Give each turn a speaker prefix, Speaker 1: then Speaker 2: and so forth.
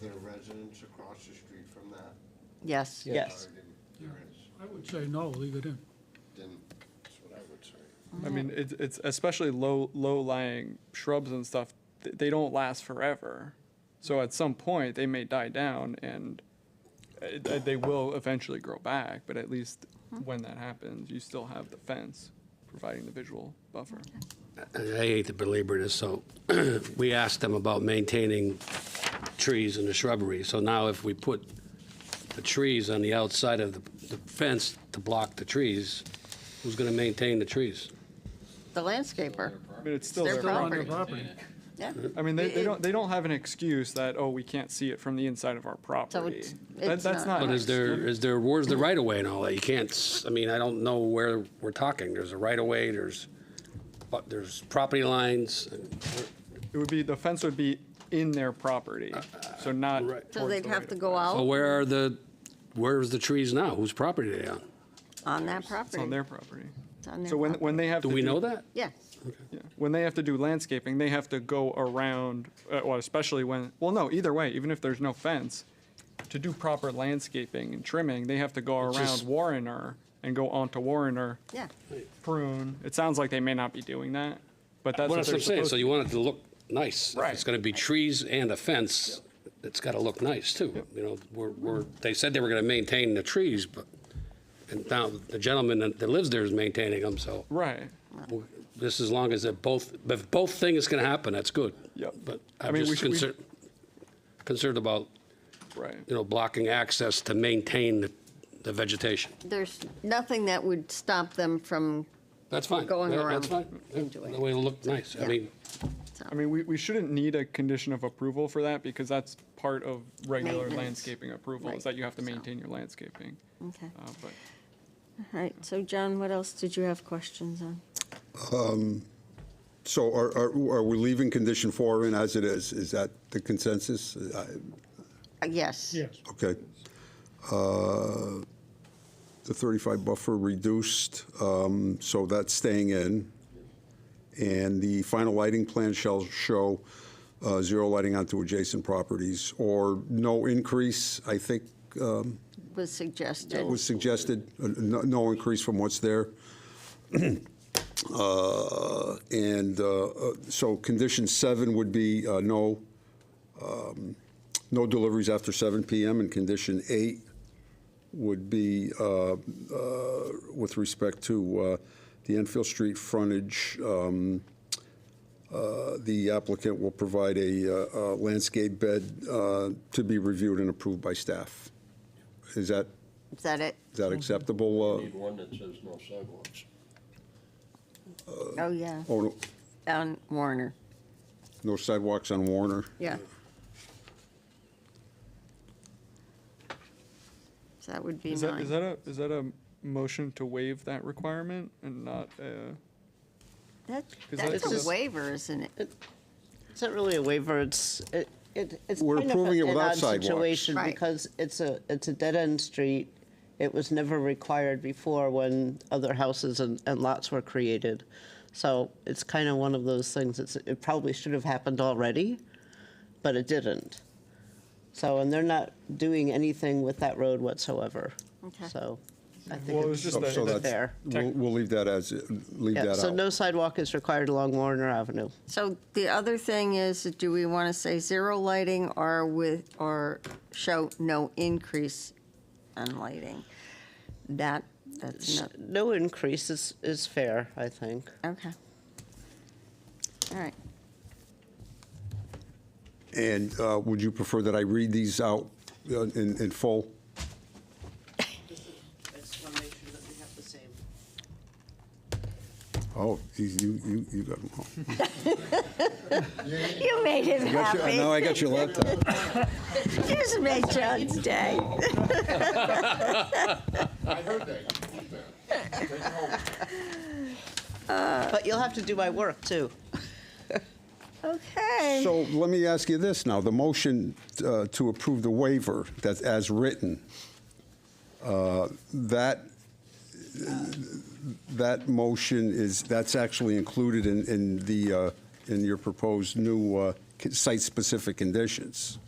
Speaker 1: there residents across the street from that?
Speaker 2: Yes.
Speaker 3: Yes.
Speaker 1: Or didn't- There is,
Speaker 4: I would say no, leave it in.
Speaker 1: didn't, that's what I would say.
Speaker 5: I mean, it's, it's especially low, low-lying shrubs and stuff, th- they don't last forever. So at some point, they may die down and uh, th- they will eventually grow back, but at least
Speaker 2: Hmm.
Speaker 5: when that happens, you still have the fence providing the visual buffer.
Speaker 6: I hate to belabor this, so we asked them about maintaining trees and the shrubbery. So now if we put the trees on the outside of the the fence to block the trees, who's going to maintain the trees?
Speaker 2: The landscaper,
Speaker 5: I mean, it's still
Speaker 2: their
Speaker 5: their
Speaker 4: Still on
Speaker 5: property.
Speaker 4: their
Speaker 2: Property.
Speaker 4: property.
Speaker 2: yeah.
Speaker 5: I mean, they,
Speaker 2: It-
Speaker 5: they don't, they don't have an excuse that, oh, we can't see it from the inside of our property.
Speaker 2: it's-
Speaker 5: That-
Speaker 2: it's
Speaker 5: That's
Speaker 2: not-
Speaker 5: not
Speaker 6: But
Speaker 5: an
Speaker 6: is there,
Speaker 5: excuse.
Speaker 6: is there, where's the right of way and all that? You can't, s- I mean, I don't know where we're talking. There's a right of way, there's, but there's property lines.
Speaker 5: It would be, the fence would be in their property, so not
Speaker 6: Right.
Speaker 5: towards
Speaker 2: So they'd
Speaker 5: the
Speaker 2: have
Speaker 5: right
Speaker 2: to
Speaker 5: of
Speaker 2: go
Speaker 5: way.
Speaker 6: So
Speaker 2: out
Speaker 6: where are the, where's the trees now? Whose property are they on?
Speaker 2: on that property.
Speaker 5: It's on their property.
Speaker 2: It's on their
Speaker 5: So when,
Speaker 2: property.
Speaker 5: when they have
Speaker 6: Do
Speaker 5: to.
Speaker 6: we know that?
Speaker 2: Yeah,
Speaker 5: yeah, When they have to do landscaping, they have to go around, uh, well, especially when, well, no, either way, even if there's no fence, to do proper landscaping and trimming, they have to go
Speaker 6: It's
Speaker 5: around
Speaker 6: just-
Speaker 5: Warrener and go onto Warrener,
Speaker 2: yeah.
Speaker 5: prune. It sounds like they may not be doing that, but
Speaker 6: Well,
Speaker 5: that's what
Speaker 6: that's what
Speaker 5: they're
Speaker 6: I'm saying,
Speaker 5: supposed
Speaker 6: so
Speaker 5: to.
Speaker 6: you want it to look nice. If it's
Speaker 5: Right.
Speaker 6: gonna be trees and a fence, it's gotta look nice too. You know, we're, we're, they said they were gonna maintain the trees, but, and now the gentleman that that lives there is maintaining them, so.
Speaker 5: Right,
Speaker 6: we're- This, as long as they're both, if both things can happen, that's good.
Speaker 5: Yep.
Speaker 6: But
Speaker 5: I
Speaker 6: I'm
Speaker 5: mean, we
Speaker 6: just
Speaker 5: should- we-
Speaker 6: concerned, concerned about,
Speaker 5: right.
Speaker 6: you know, blocking access to maintain the- the vegetation.
Speaker 2: There's nothing that would stop them from,
Speaker 6: That's fine.
Speaker 2: Going
Speaker 6: Yeah,
Speaker 2: around
Speaker 6: That's fine.
Speaker 2: into it.
Speaker 6: The way it looked nice. I
Speaker 2: Yeah.
Speaker 6: mean,
Speaker 5: I mean, we, we shouldn't need a condition of approval for that because that's part of regular
Speaker 2: Maintenance.
Speaker 5: landscaping approval,
Speaker 2: Right.
Speaker 5: is that you have to
Speaker 2: So-
Speaker 5: maintain your landscaping.
Speaker 2: okay.
Speaker 5: Uh, But
Speaker 2: All right, so John, what else did you have questions on?
Speaker 7: So are, are, are we leaving condition four in as it is? Is that the consensus? I-
Speaker 2: Uh, Yes.
Speaker 4: Yes.
Speaker 7: Okay. Uh, The 35 buffer reduced, um, so that's staying in. And the final lighting plan shall show uh, zero lighting onto adjacent properties or no increase, I think um,
Speaker 2: Was suggested.
Speaker 7: was suggested, uh, no no increase from what's there. Uh, And uh, uh, so condition seven would be uh, no, um, no deliveries after 7 PM. And condition eight would be uh, uh, with respect to uh, the Enfield Street frontage, um, uh, the applicant will provide a uh, uh, landscape bed uh, to be reviewed and approved by staff. Is that
Speaker 2: Is that it?
Speaker 7: is that acceptable? uh,
Speaker 1: Need one that says no sidewalks.
Speaker 2: Oh, yeah,
Speaker 7: uh, Oh, no-
Speaker 2: on Warner,
Speaker 7: no sidewalks on Warner?
Speaker 2: yeah. So that would be
Speaker 5: Is that, is
Speaker 2: nine.
Speaker 5: that a, is that a motion to waive that requirement and not, uh,
Speaker 2: That-
Speaker 5: is that-
Speaker 2: That's
Speaker 5: is
Speaker 2: a
Speaker 5: that-
Speaker 2: waiver, isn't it?
Speaker 3: It's not really a waiver, it's, it, it- it's
Speaker 7: We're
Speaker 3: kind of
Speaker 7: approving it
Speaker 3: an
Speaker 7: without
Speaker 3: odd
Speaker 7: sidewalks.
Speaker 3: situation
Speaker 2: Right.
Speaker 3: because it's a, it's a dead-end street. It was never required before when other houses and, and lots were created. So it's kind of one of those things, it's, it probably should have happened already, but it didn't. So, and they're not doing anything with that road whatsoever.
Speaker 2: Okay.
Speaker 3: So I
Speaker 5: Well, it
Speaker 3: think
Speaker 5: was
Speaker 3: it's
Speaker 5: just that-
Speaker 7: Oh, So
Speaker 5: It's
Speaker 7: that's-
Speaker 3: fair.
Speaker 7: We'll, we'll leave that as, leave
Speaker 3: Yeah,
Speaker 7: that
Speaker 3: so no
Speaker 7: out.
Speaker 3: sidewalk is required along Warner Avenue.
Speaker 2: So the other thing is, do we want to say zero lighting or with, or show no increase on lighting? That, that's not,
Speaker 3: No increase is, is fair, I think.
Speaker 2: okay. All right,
Speaker 7: And uh, would you prefer that I read these out uh, in, in full?
Speaker 3: I just want to make sure that we have the same.
Speaker 7: Oh, you, you, you- you got them all.
Speaker 2: you made him
Speaker 7: Got your- Now
Speaker 2: happy.
Speaker 7: I got your laptop.
Speaker 2: Just made John's day.
Speaker 3: But you'll have to do my work, too.
Speaker 2: Okay.
Speaker 7: So let me ask you this now, the motion uh, to approve the waiver that's as written, uh, that, that motion is, that's actually included in, in the, uh, in your proposed new uh, site-specific conditions.